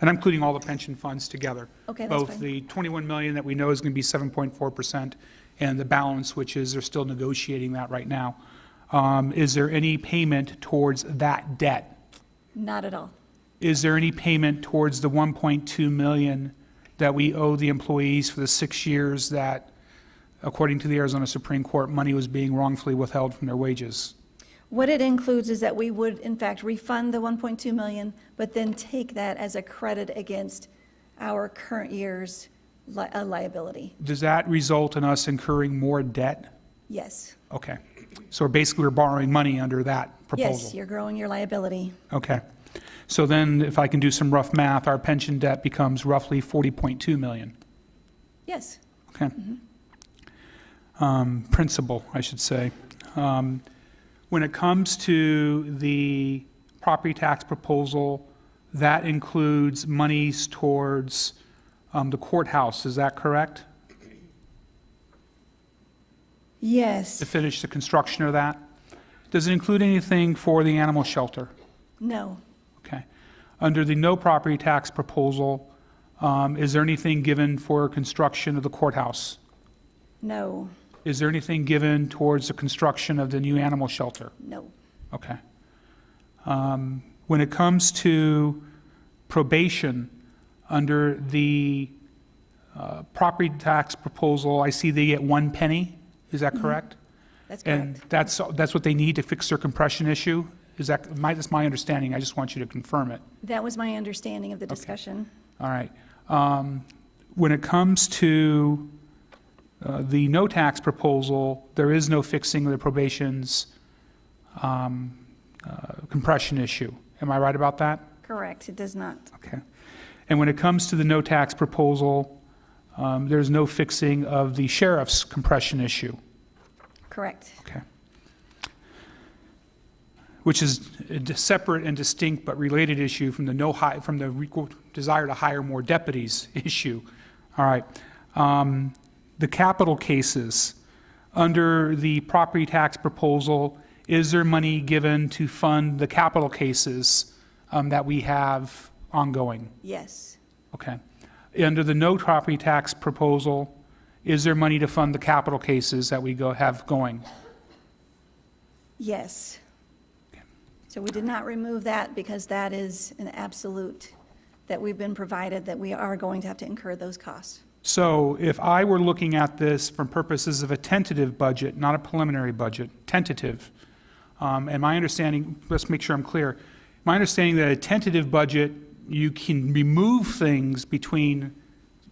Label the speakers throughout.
Speaker 1: And I'm including all the pension funds together.
Speaker 2: Okay, that's
Speaker 1: Both
Speaker 2: fine.
Speaker 1: the 21 million that we know is going to be 7.4% and the balance, which is, they're still negotiating that right now. Um, Is there any payment towards that debt?
Speaker 2: Not at all.
Speaker 1: Is there any payment towards the 1.2 million that we owe the employees for the six years that, according to the Arizona Supreme Court, money was being wrongfully withheld from their wages?
Speaker 2: What it includes is that we would, in fact, refund the 1.2 million, but then take that as a credit against our current year's li- uh, liability.
Speaker 1: Does that result in us incurring more debt?
Speaker 2: Yes.
Speaker 1: Okay. So basically, we're borrowing money under that proposal?
Speaker 2: Yes, you're growing your liability.
Speaker 1: Okay. So then, if I can do some rough math, our pension debt becomes roughly 40.2 million.
Speaker 2: Yes.
Speaker 1: Okay. Um, Principal, I should say. Um, When it comes to the property tax proposal, that includes monies towards um, the courthouse, is that correct? To
Speaker 2: Yes.
Speaker 1: finish the construction of that? Does it include anything for the animal shelter?
Speaker 2: No.
Speaker 1: Okay. Under the no property tax proposal, um, is there anything given for construction of the courthouse?
Speaker 2: No.
Speaker 1: Is there anything given towards the construction of the new animal shelter?
Speaker 2: No.
Speaker 1: Okay. Um, When it comes to probation, under the uh, property tax proposal, I see they get one penny. Is that correct?
Speaker 2: That's
Speaker 1: And
Speaker 2: correct.
Speaker 1: that's, that's what they need to fix their compression issue? Is that, my, that's my understanding. I just want you to confirm it.
Speaker 2: That was my understanding of the discussion.
Speaker 1: All right. Um, When it comes to uh, the no tax proposal, there is no fixing of the probation's um, uh, compression issue. Am I right about that?
Speaker 2: Correct. It does not.
Speaker 1: Okay. And when it comes to the no tax proposal, um, there's no fixing of the sheriff's compression issue.
Speaker 2: Correct.
Speaker 1: Okay. Which is a d- separate and distinct but related issue from the no hi, from the re- desire to hire more deputies issue. All right. Um, The capital cases, under the property tax proposal, is there money given to fund the capital cases um, that we have ongoing?
Speaker 2: Yes.
Speaker 1: Okay. Under the no property tax proposal, is there money to fund the capital cases that we go, have going?
Speaker 2: Yes. So we did not remove that because that is an absolute that we've been provided that we are going to have to incur those costs.
Speaker 1: So if I were looking at this from purposes of a tentative budget, not a preliminary budget, tentative, um, and my understanding, let's make sure I'm clear, my understanding that a tentative budget, you can remove things between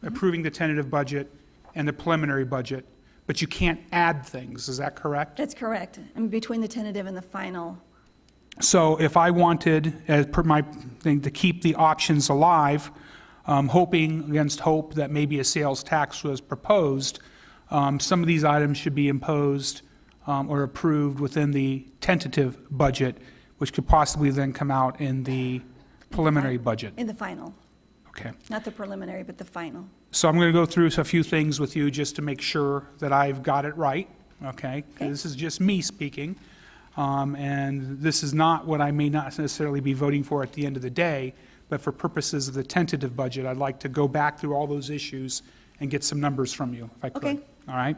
Speaker 1: approving the tentative budget and the preliminary budget, but you can't add things, is that correct?
Speaker 2: That's correct. And between the tentative and the final,
Speaker 1: So if I wanted, as per my thing, to keep the options alive, um, hoping against hope that maybe a sales tax was proposed, um, some of these items should be imposed um, or approved within the tentative budget, which could possibly then come out in the preliminary budget.
Speaker 2: in the final,
Speaker 1: Okay.
Speaker 2: not the preliminary, but the final.
Speaker 1: So I'm going to go through a few things with you just to make sure that I've got it right, okay? 'Cause
Speaker 2: Okay.
Speaker 1: This is just me speaking, um, and this is not what I may not necessarily be voting for at the end of the day, but for purposes of the tentative budget, I'd like to go back through all those issues and get some numbers from you, if I could.
Speaker 2: Okay.
Speaker 1: All right?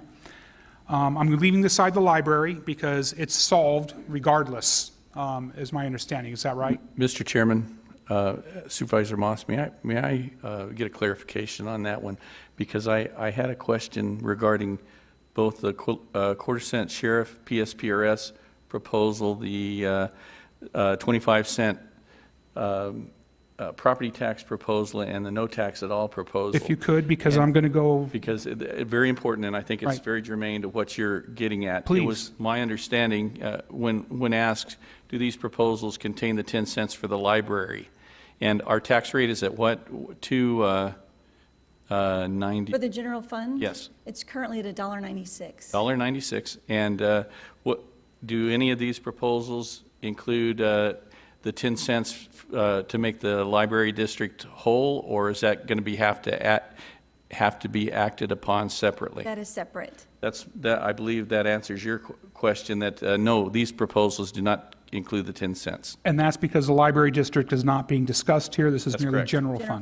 Speaker 1: Um, I'm leaving aside the library because it's solved regardless, um, is my understanding. Is that right?
Speaker 3: Mr. Chairman, uh, Supervisor Moss, may I, may I uh, get a clarification on that one? Because I, I had a question regarding both the qu- uh, quarter cent sheriff PSPRS proposal, the uh, uh, 25 cent um, uh, property tax proposal, and the no tax at all proposal.
Speaker 1: If you could, because I'm going to go,
Speaker 3: Because it, it- very important, and I think it's
Speaker 1: Right.
Speaker 3: very germane to what you're getting at. It
Speaker 1: Please.
Speaker 3: was my understanding, uh, when, when asked, do these proposals contain the 10 cents for the library? And our tax rate is at what, two, uh, uh, ninety,
Speaker 2: For the general fund?
Speaker 3: Yes.
Speaker 2: It's currently at a dollar ninety-six.
Speaker 3: dollar 96? And uh, what, do any of these proposals include uh, the 10 cents uh, to make the library district whole? Or is that going to be, have to, act- have to be acted upon separately?
Speaker 2: That is separate.
Speaker 3: That's, that, I believe that answers your qu- question, that, uh, no, these proposals do not include the 10 cents.
Speaker 1: and that's because the library district is not being discussed here. This is
Speaker 3: That's
Speaker 1: merely
Speaker 3: correct.
Speaker 1: general fund.